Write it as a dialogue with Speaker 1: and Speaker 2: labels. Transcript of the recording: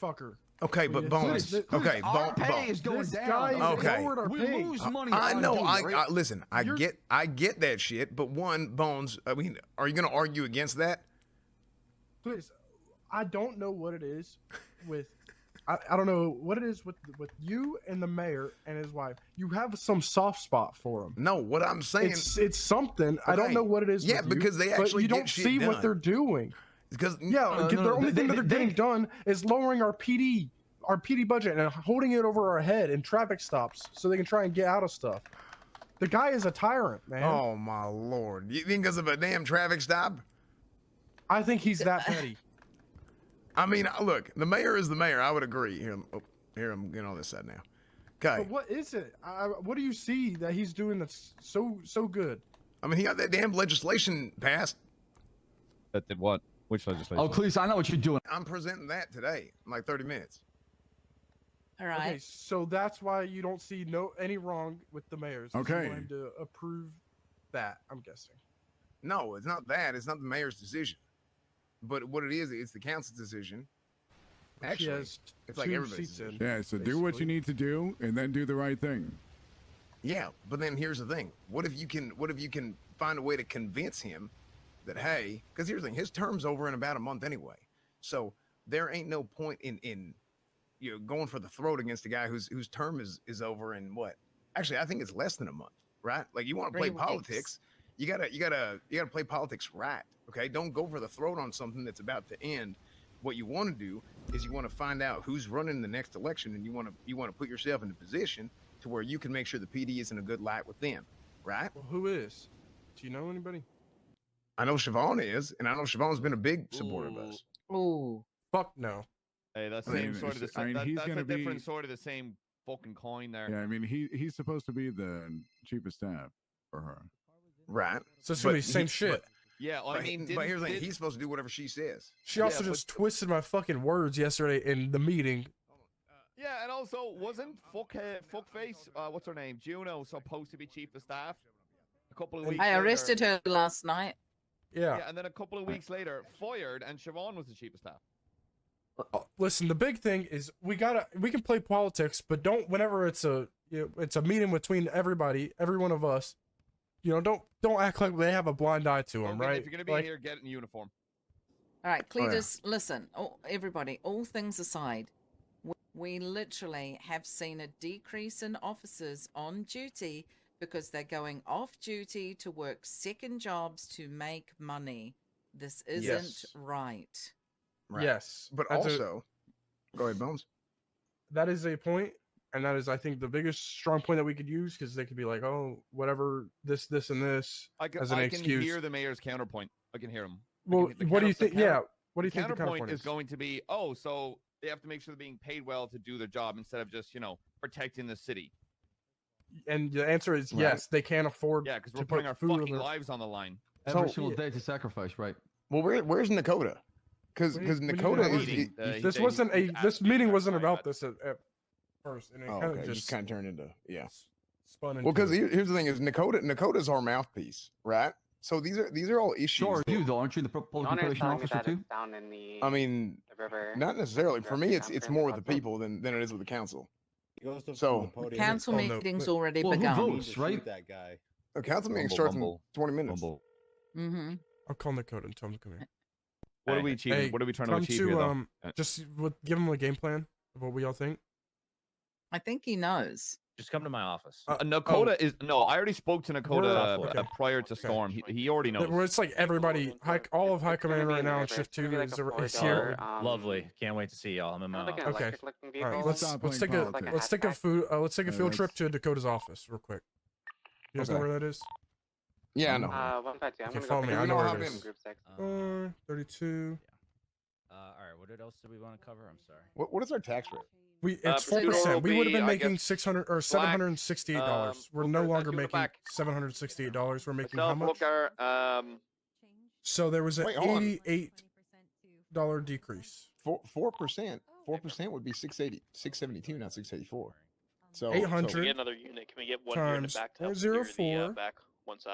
Speaker 1: fucker.
Speaker 2: Okay, but bones.
Speaker 1: This-
Speaker 2: Okay,
Speaker 3: Our
Speaker 2: bone,
Speaker 3: pay
Speaker 2: bones.
Speaker 3: is going
Speaker 1: this
Speaker 3: down.
Speaker 1: guy
Speaker 2: Okay.
Speaker 1: lowered our
Speaker 3: we
Speaker 1: pay.
Speaker 3: lose
Speaker 1: Uh,
Speaker 3: money.
Speaker 2: I
Speaker 3: on
Speaker 2: know.
Speaker 3: doing
Speaker 2: I,
Speaker 3: it, right?
Speaker 2: I listen. I
Speaker 1: You're-
Speaker 2: get. I get that shit. But one, bones. I mean, are you gonna argue against that?
Speaker 1: Please, I don't know what it is with. I, I don't know what it is with with you and the mayor and his wife. You have some soft spot for him.
Speaker 2: No. What I'm saying
Speaker 1: It's it's something. I don't
Speaker 2: Okay.
Speaker 1: know what it is.
Speaker 2: Yeah,
Speaker 1: with you,
Speaker 2: because they
Speaker 1: but
Speaker 2: actually
Speaker 1: you
Speaker 2: get
Speaker 1: don't
Speaker 2: shit
Speaker 1: see
Speaker 2: done. Mm,
Speaker 1: what they're doing.
Speaker 2: because
Speaker 1: Yeah,
Speaker 3: No,
Speaker 1: the
Speaker 3: no, no,
Speaker 1: only
Speaker 3: they-
Speaker 1: thing that
Speaker 3: they-
Speaker 1: they're
Speaker 3: they-
Speaker 1: getting done is lowering our PD, our PD budget, and holding it over our head in traffic stops so they can try and get out of stuff. The guy is a tyrant, man.
Speaker 2: Oh my lord! You think because of a damn traffic stop?
Speaker 1: I think he's that petty.
Speaker 2: I mean, I- look, the mayor is the mayor. I would agree. Here, I'm- oh, here I'm getting on this side now. Okay.
Speaker 1: But what is it? I, I- what do you see that he's doing that's so so good?
Speaker 2: I mean, he got that damn legislation passed.
Speaker 4: That did what? Which legislation?
Speaker 3: Oh, Cleese, I know what you're doing.
Speaker 2: I'm presenting that today in like 30 minutes.
Speaker 5: All right.
Speaker 1: Okay, so that's why you don't see no any wrong with the mayor's. is you want
Speaker 6: Okay.
Speaker 1: him to approve that. I'm guessing.
Speaker 2: No, it's not that. It's not the mayor's decision. But what it is, it's the council's decision.
Speaker 1: But she
Speaker 2: Actually,
Speaker 1: has
Speaker 2: it's like
Speaker 1: two
Speaker 2: everybody's
Speaker 1: seats in.
Speaker 2: decision.
Speaker 6: Yeah, so do what
Speaker 1: Basically.
Speaker 6: you need to do and then do the right thing.
Speaker 2: Yeah, but then here's the thing: what if you can? What if you can find a way to convince him that hey, because here's the thing: his term's over in about a month anyway, so there ain't no point in in you know going for the throat against a guy whose whose term is is over in what? Actually, I think it's less than a month, right? Like you want to play
Speaker 5: Three weeks.
Speaker 2: politics, you gotta you gotta you gotta play politics right. Okay, don't go for the throat on something that's about to end. What you want to do is you want to find out who's running the next election, and you want to you want to put yourself in a position to where you can make sure the PD is in a good light with them, right?
Speaker 1: Well, who is? Do you know anybody?
Speaker 2: I know Siobhan is, and I know Siobhan's been a big supporter of us.
Speaker 5: Ooh.
Speaker 1: Fuck no.
Speaker 7: Hey, that's
Speaker 6: I
Speaker 7: the
Speaker 6: mean,
Speaker 7: same sort of the
Speaker 6: it's- I mean,
Speaker 7: same. That,
Speaker 6: he's
Speaker 7: that's a
Speaker 6: gonna be-
Speaker 7: different sort of the same fucking coin there.
Speaker 6: Yeah, I mean, he he's supposed to be the chief of staff for her.
Speaker 2: Right.
Speaker 1: So
Speaker 2: it's gonna be But same he- shit.
Speaker 7: Yeah, I
Speaker 2: But,
Speaker 7: mean,
Speaker 2: he- but
Speaker 7: didn't-
Speaker 2: here's the thing,
Speaker 7: did-
Speaker 2: he's supposed to do whatever she says.
Speaker 1: She
Speaker 7: Yeah,
Speaker 1: also
Speaker 7: but-
Speaker 1: just twisted my fucking words yesterday in the meeting.
Speaker 7: yeah, and also wasn't fuck uh, fuckface. Uh, what's her name? Juno supposed to be chief of staff. A couple of
Speaker 1: And-
Speaker 7: weeks.
Speaker 5: I
Speaker 7: later-
Speaker 5: arrested her last night.
Speaker 1: Yeah.
Speaker 7: Yeah, and then a couple of weeks later, fired, and Siobhan was the chief of staff.
Speaker 1: Listen, the big thing is we gotta we can play politics, but don't whenever it's a you know, it's a meeting between everybody, every one of us. You know, don't don't act like they have a blind eye to
Speaker 7: I
Speaker 1: them,
Speaker 7: mean,
Speaker 1: right?
Speaker 7: If you're gonna be
Speaker 1: Like,
Speaker 7: here, get it in uniform.
Speaker 5: All right,
Speaker 1: Oh,
Speaker 2: yeah.
Speaker 5: Cletus, listen, all, everybody, all things aside, we, we literally have seen a decrease in officers on duty because they're going off duty to work second jobs to make money. This isn't
Speaker 1: Yes.
Speaker 5: right.
Speaker 2: Right.
Speaker 1: Yes,
Speaker 2: But
Speaker 1: that's a-
Speaker 2: also, go ahead, Bones.
Speaker 1: that is a point, and that is I think the biggest strong point that we could use because they could be like, oh, whatever, this, this, and this.
Speaker 7: I can,
Speaker 1: As an
Speaker 7: I can
Speaker 1: excuse.
Speaker 7: hear the mayor's counterpoint. I can hear him.
Speaker 1: Well,
Speaker 7: the
Speaker 1: what do you
Speaker 7: counter- the
Speaker 1: think? Yeah,
Speaker 7: counter-
Speaker 1: what do you think the
Speaker 7: counterpoint,
Speaker 1: counterpoint
Speaker 7: is, going to be, oh, so they have to make sure they're being paid well to do their job instead of just you know protecting the city.
Speaker 1: And the answer is
Speaker 6: Right.
Speaker 1: yes, they can't afford.
Speaker 7: Yeah, because
Speaker 1: to
Speaker 7: we're
Speaker 1: put
Speaker 7: putting our
Speaker 1: food on
Speaker 7: fucking
Speaker 1: their-
Speaker 7: lives on the line.
Speaker 3: Every
Speaker 1: So-
Speaker 3: single day to sacrifice, right?
Speaker 2: Well, where, where's Nakota? Because
Speaker 1: When you-
Speaker 2: because
Speaker 1: when you
Speaker 2: Nakota
Speaker 1: have
Speaker 2: is
Speaker 1: meeting,
Speaker 2: it-
Speaker 7: uh, he
Speaker 1: This
Speaker 7: said he-
Speaker 1: wasn't
Speaker 7: he
Speaker 1: a. This
Speaker 7: asked me
Speaker 1: mean
Speaker 7: to
Speaker 1: wasn't
Speaker 7: clarify,
Speaker 1: about
Speaker 7: but-
Speaker 1: this at, at first, and it
Speaker 2: oh,
Speaker 1: kind of
Speaker 2: okay,
Speaker 1: just
Speaker 2: just kind of turned into yeah.
Speaker 1: s- spun into.
Speaker 2: Well, because here's the thing: is Nakota Nakota's our mouthpiece, right? So these are these are all issues.
Speaker 3: Sure,
Speaker 2: that-
Speaker 3: you though, aren't you the pro- public
Speaker 8: Honor's
Speaker 3: information
Speaker 8: telling me
Speaker 3: officer
Speaker 8: that
Speaker 3: too?
Speaker 8: it's down in the,
Speaker 2: I mean,
Speaker 8: the river.
Speaker 2: not necessarily. For
Speaker 8: Throughout
Speaker 2: me,
Speaker 8: the
Speaker 2: it's it's
Speaker 8: conference,
Speaker 2: more with the
Speaker 8: also-
Speaker 2: people than than it is with the council.
Speaker 9: He goes to
Speaker 2: So-
Speaker 9: so, the podium.
Speaker 5: Council
Speaker 1: Oh, no,
Speaker 5: meeting's
Speaker 1: but-
Speaker 5: already
Speaker 3: Well, who
Speaker 5: begun.
Speaker 3: votes?
Speaker 9: Need to shoot
Speaker 3: right?
Speaker 9: That guy.
Speaker 2: The council meeting
Speaker 4: Bumble,
Speaker 2: starts
Speaker 4: bumble,
Speaker 2: in 20 minutes.
Speaker 4: bumble.
Speaker 5: hmm
Speaker 1: I'll call Dakota and tell him to come here.
Speaker 7: What are we achieving?
Speaker 1: Hey,
Speaker 7: what are we trying to
Speaker 1: Come
Speaker 7: achieve
Speaker 1: to
Speaker 7: here, though?
Speaker 1: um,
Speaker 7: Uh,
Speaker 1: just with, give him a game plan of what we all think.
Speaker 5: I think he knows.
Speaker 10: Just come to my office.
Speaker 1: Uh,
Speaker 7: Uh, Nakota is no. I already spoke to Nakota uh,
Speaker 1: okay.
Speaker 7: uh, prior to
Speaker 1: Okay.
Speaker 7: Storm. He, he already knows.
Speaker 1: Where it's like everybody, high, all of high
Speaker 8: It's gonna
Speaker 1: command
Speaker 8: be
Speaker 1: right
Speaker 8: in the
Speaker 1: now in
Speaker 8: river.
Speaker 1: shift
Speaker 8: It's gonna
Speaker 1: two
Speaker 8: be like
Speaker 1: is,
Speaker 8: a
Speaker 1: is
Speaker 8: $4
Speaker 1: here.
Speaker 8: or, um,
Speaker 10: Lovely. Can't wait to see y'all. I'm in my
Speaker 8: kind of like an
Speaker 10: office.
Speaker 1: Okay.
Speaker 8: electric looking
Speaker 1: All right,
Speaker 8: vehicle. Um,
Speaker 1: let's
Speaker 6: Stop
Speaker 1: let's
Speaker 6: playing
Speaker 1: take a
Speaker 6: politics.
Speaker 1: let's take a food uh, let's take a
Speaker 6: Yeah,
Speaker 1: field trip
Speaker 6: let's-
Speaker 1: to Dakota's office real quick. You guys know
Speaker 2: Okay.
Speaker 1: where that is?
Speaker 2: Yeah, I know.
Speaker 8: Uh, one by two. I'm
Speaker 1: Okay,
Speaker 8: gonna
Speaker 1: follow
Speaker 8: go
Speaker 1: me,
Speaker 8: pick
Speaker 2: I
Speaker 8: up
Speaker 2: know
Speaker 8: the
Speaker 2: where it
Speaker 8: group
Speaker 2: is.
Speaker 8: Group six.
Speaker 10: Um,
Speaker 1: Uh, thirty-two.
Speaker 10: uh, all right. What else did we want to cover? I'm sorry.
Speaker 2: What, what is our tax rate?
Speaker 1: We it's four
Speaker 5: potato
Speaker 1: percent. We
Speaker 7: will
Speaker 1: would have been
Speaker 7: be, I
Speaker 1: making
Speaker 7: guess,
Speaker 1: six hundred or
Speaker 7: black,
Speaker 1: seven hundred and sixty-eight dollars.
Speaker 7: um,
Speaker 1: We're no
Speaker 7: Booker, that's
Speaker 1: longer
Speaker 7: you in the
Speaker 1: making
Speaker 7: back.
Speaker 1: seven hundred sixty-eight dollars. We're making how
Speaker 7: Myself,
Speaker 1: much?
Speaker 7: Booker, um,
Speaker 1: So there was an
Speaker 2: Wait, hold on.
Speaker 1: eighty-eight dollar decrease.
Speaker 2: Four
Speaker 5: Oh,
Speaker 2: four percent. Four percent would be 680, 672, not six eighty four. So
Speaker 1: Eight
Speaker 2: so-
Speaker 1: hundred.
Speaker 11: another unit. Can we get
Speaker 1: times
Speaker 11: back to help
Speaker 1: zero
Speaker 11: clear the, uh,
Speaker 1: four.
Speaker 11: back one side?